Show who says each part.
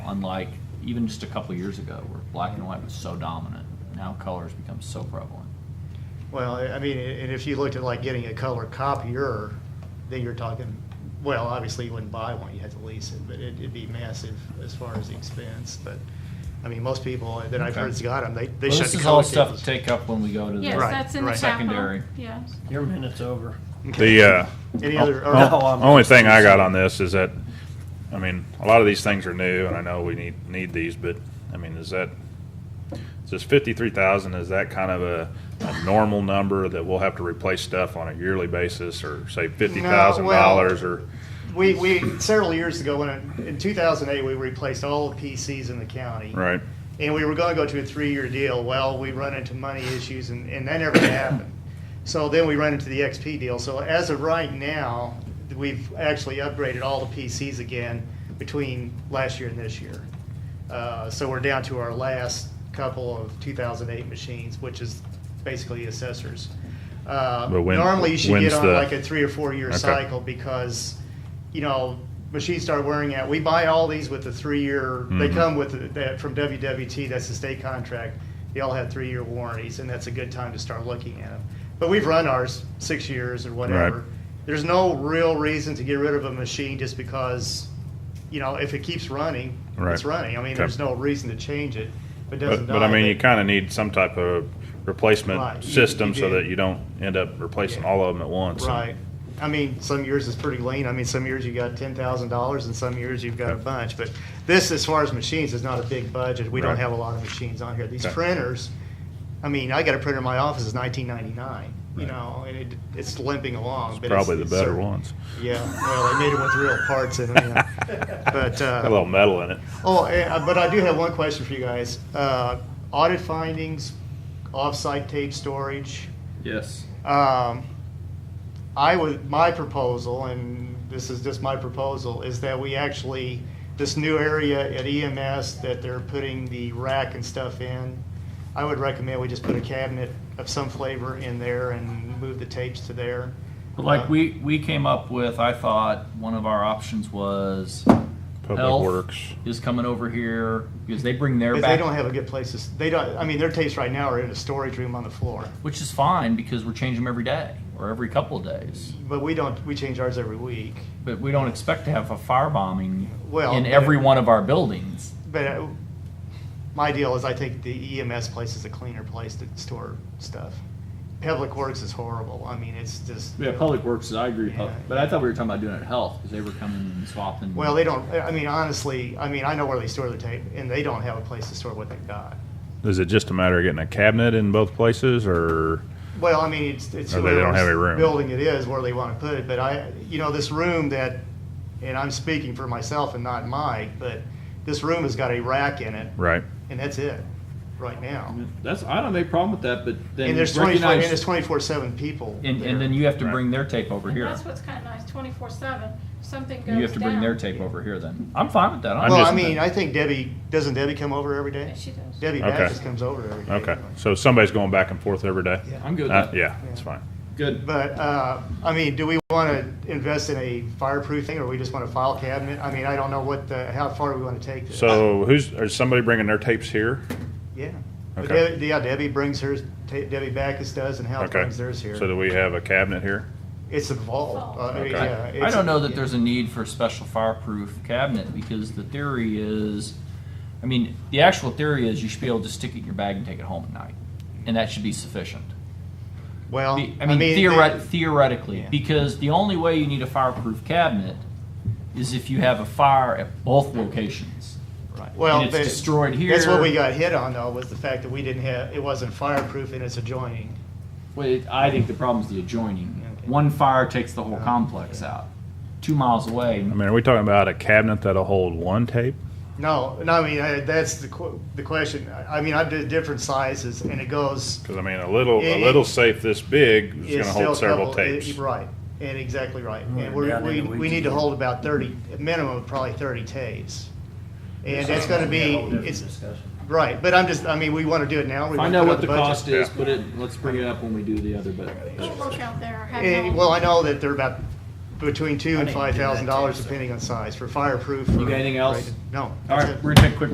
Speaker 1: unlike even just a couple years ago where black and white was so dominant. Now color's become so prevalent.
Speaker 2: Well, I I mean, and if you looked at like getting a color copier, then you're talking, well, obviously you wouldn't buy one, you had to lease it, but it- it'd be massive as far as the expense, but, I mean, most people that I've heard's
Speaker 1: Okay.
Speaker 2: got them, they, they
Speaker 1: Well,
Speaker 2: shut
Speaker 1: this
Speaker 2: the
Speaker 1: is
Speaker 2: color
Speaker 1: all stuff
Speaker 2: tables.
Speaker 1: to take up when we go to the.
Speaker 3: Yes,
Speaker 2: Right,
Speaker 3: that's in the
Speaker 2: right.
Speaker 3: capital,
Speaker 1: Secondary.
Speaker 3: yes.
Speaker 4: Your minute's over.
Speaker 5: The uh, oh.
Speaker 2: Any other, oh, or-
Speaker 4: No, I'm-
Speaker 5: only thing I got on this is that, I mean, a lot of these things are new, and I know we need need these, but I mean, is that is this fifty three thousand? Is that kind of a, a normal number that we'll have to replace stuff on a yearly basis, or say fifty thousand dollars, or
Speaker 2: we, we, several years ago, when, it- in 2008, we replaced all the PCs in the county.
Speaker 5: right?
Speaker 2: and we were going to go to a three-year deal. Well, we run into money issues, and, and that never happened. So then we run into the XP deal. So as of right now, we've actually upgraded all the PCs again between last year and this year. Uh, so we're down to our last couple of 2008 machines, which is basically assessors. Uh,
Speaker 5: But when-
Speaker 2: normally, you should get
Speaker 5: when's
Speaker 2: on
Speaker 5: the-
Speaker 2: like a three or four-year
Speaker 5: Okay.
Speaker 2: cycle because you know, machines start wearing out. We buy all these with the three-year. They
Speaker 5: Mhm.
Speaker 2: come with the- that from WWT. That's the state contract. They all have three-year warranties, and that's a good time to start looking at them. But we've run ours six years or whatever.
Speaker 5: Right.
Speaker 2: There's no real reason to get rid of a machine just because, you know, if it keeps running,
Speaker 5: Right.
Speaker 2: it's running. I mean,
Speaker 5: Okay.
Speaker 2: there's no reason to change it. If it doesn't
Speaker 5: But, but I
Speaker 2: die,
Speaker 5: mean, you
Speaker 2: then-
Speaker 5: kind of need some type of
Speaker 2: Right,
Speaker 5: replacement
Speaker 2: you-
Speaker 5: system
Speaker 2: you
Speaker 5: so
Speaker 2: do.
Speaker 5: that you don't end up replacing
Speaker 2: Yeah.
Speaker 5: all of them at once.
Speaker 2: Right. I mean, some years it's pretty lean. I mean, some years you got ten thousand dollars and some years you've got a
Speaker 5: Okay.
Speaker 2: bunch. But this, as far as machines, is not a big budget. We don't
Speaker 5: Right.
Speaker 2: have a lot of machines on here. These
Speaker 5: Okay.
Speaker 2: printers, I mean, I got a printer in my office, it's nineteen ninety-nine, you
Speaker 5: Right.
Speaker 2: know, and it, it's limping along.
Speaker 5: It's
Speaker 2: but
Speaker 5: probably the
Speaker 2: it's
Speaker 5: better
Speaker 2: certain-
Speaker 5: ones.
Speaker 2: Yeah, well, they made it with real parts in them, yeah. But, uh,
Speaker 5: Got a little metal in it.
Speaker 2: Oh, eh, uh, but I do have one question for you guys. Uh, Audit findings, off-site tape storage,
Speaker 1: Yes.
Speaker 2: um, I would, my proposal, and this is just my proposal, is that we actually, this new area at EMS that they're putting the rack and stuff in, I would recommend we just put a cabinet of some flavor in there and move the tapes to there.
Speaker 1: But like
Speaker 2: Uh,
Speaker 1: we, we came up with, I thought one of our options was
Speaker 5: Public
Speaker 1: Health
Speaker 5: Works.
Speaker 1: is coming over here because they bring their
Speaker 2: Because
Speaker 1: back.
Speaker 2: they don't have a good place to, s- they don't, I mean, their tapes right now are in a storage room on the floor.
Speaker 1: which is fine because we're changing them every day or every couple of days.
Speaker 2: But we don't, we change ours every week.
Speaker 1: But we don't expect to have a firebombing
Speaker 2: Well,
Speaker 1: in
Speaker 2: but-
Speaker 1: every one of our buildings.
Speaker 2: But uh, my deal is I think the EMS place is a cleaner place to store stuff. Public Works is horrible. I mean, it's just.
Speaker 1: Yeah, Public Works, I agree,
Speaker 2: Pub- Yeah.
Speaker 1: but I thought we were talking about doing it at Health, because they were coming and swapping.
Speaker 2: Well, they don't, I mean, honestly, I mean, I know where they store their tape and they don't have a place to store what they've got.
Speaker 5: Is it just a matter of getting a cabinet in both places, or
Speaker 2: Well, I mean, it's, it's.
Speaker 5: Or they don't have a
Speaker 2: whoever's
Speaker 5: room.
Speaker 2: Building it is where they want to put it, but I, you know, this room that, and I'm speaking for myself and not Mike, but this room has got a rack in it
Speaker 5: right?
Speaker 2: and that's it right now.
Speaker 1: That's, I don't have any problem with that, but
Speaker 2: And there's twenty-four, and there's twenty-four seven people.
Speaker 1: And,
Speaker 2: there.
Speaker 1: and then you have to
Speaker 5: Right.
Speaker 1: bring their tape over
Speaker 3: And
Speaker 1: here.
Speaker 3: that's what's kind of nice, twenty-four seven, if something goes down.
Speaker 1: You have to bring their tape over here then. I'm fine with that.
Speaker 5: I'm
Speaker 2: well,
Speaker 5: just-
Speaker 2: I mean, I think Debbie doesn't Debbie come over every day?
Speaker 3: Yeah, She does.
Speaker 2: Debbie
Speaker 5: Okay.
Speaker 2: Baptist comes over every day.
Speaker 5: Okay, so somebody's going back and forth every day.
Speaker 2: Yeah.
Speaker 1: I'm good with
Speaker 5: Uh,
Speaker 1: that.
Speaker 5: yeah, it's fine.
Speaker 1: Good.
Speaker 2: But uh, I mean, do we want to invest in a fireproof thing, or we just want a file cabinet? I mean, I don't know what the how far we want to take this.
Speaker 5: So who's is somebody bringing their tapes here?
Speaker 2: yeah. But
Speaker 5: Okay.
Speaker 2: Debbie, yeah, Debbie brings hers. Ta- Debbie Backus does, and Hal
Speaker 5: Okay.
Speaker 2: brings theirs here.
Speaker 5: So do we have a cabinet here?
Speaker 2: it's a vault. Uh,
Speaker 5: Okay.
Speaker 2: yeah,
Speaker 1: I
Speaker 2: it's
Speaker 1: don't know that there's a need for a special fireproof cabinet because the theory is, I mean, the actual theory is you should be able to stick it in your bag and take it home at night, and that should be sufficient.
Speaker 2: Well,
Speaker 1: Be- I mean, theoret- theoretically,
Speaker 2: Yeah.
Speaker 1: because the only way you need a fireproof cabinet is if you have a fire at both locations.
Speaker 2: Right. Well,
Speaker 1: And it's
Speaker 2: but
Speaker 1: destroyed
Speaker 2: That's what
Speaker 1: here.
Speaker 2: we got hit on, though, was the fact that we didn't have it wasn't fireproof and it's adjoining.
Speaker 1: Wait, I think the problem is the adjoining.
Speaker 2: Okay. Oh,
Speaker 1: One fire takes the whole complex out. Two miles away,
Speaker 5: I mean, are we talking about a cabinet that'll hold one tape?
Speaker 2: No, no, I mean, I, that's the, qu- the question. I I mean, I did different sizes and it goes.
Speaker 5: Because I mean, a little
Speaker 2: It-
Speaker 5: a little safe this big is going
Speaker 2: it's
Speaker 5: to
Speaker 2: still
Speaker 5: hold several
Speaker 2: couple- it-
Speaker 5: tapes.
Speaker 2: Right, and exactly right.
Speaker 4: Right,
Speaker 2: And we're,
Speaker 4: down
Speaker 2: we,
Speaker 4: in the
Speaker 2: we need to
Speaker 4: weeds.
Speaker 2: hold about thirty, a minimum of probably thirty tapes. And that's gonna
Speaker 4: That's
Speaker 2: be,
Speaker 4: a whole different
Speaker 2: it's,
Speaker 4: discussion.
Speaker 2: right, but I'm just, I mean, we wanna do it now. we
Speaker 1: I
Speaker 2: wanna
Speaker 1: know
Speaker 2: put it
Speaker 1: what
Speaker 2: on
Speaker 1: the
Speaker 2: budget.
Speaker 1: cost is,
Speaker 5: Yeah.
Speaker 1: but it, let's bring it up when we do the other bit.
Speaker 3: We'll work out there. I have
Speaker 2: Eh,
Speaker 3: no-
Speaker 2: well, I know that they're about between two and
Speaker 4: I didn't do that
Speaker 2: five
Speaker 4: too,
Speaker 2: thousand dollars,
Speaker 4: so.
Speaker 2: depending on size, for fireproof.
Speaker 1: You
Speaker 2: for
Speaker 1: got anything else?
Speaker 2: rated. No.
Speaker 1: All
Speaker 2: that's
Speaker 1: right,
Speaker 2: it.
Speaker 1: we're gonna take a quick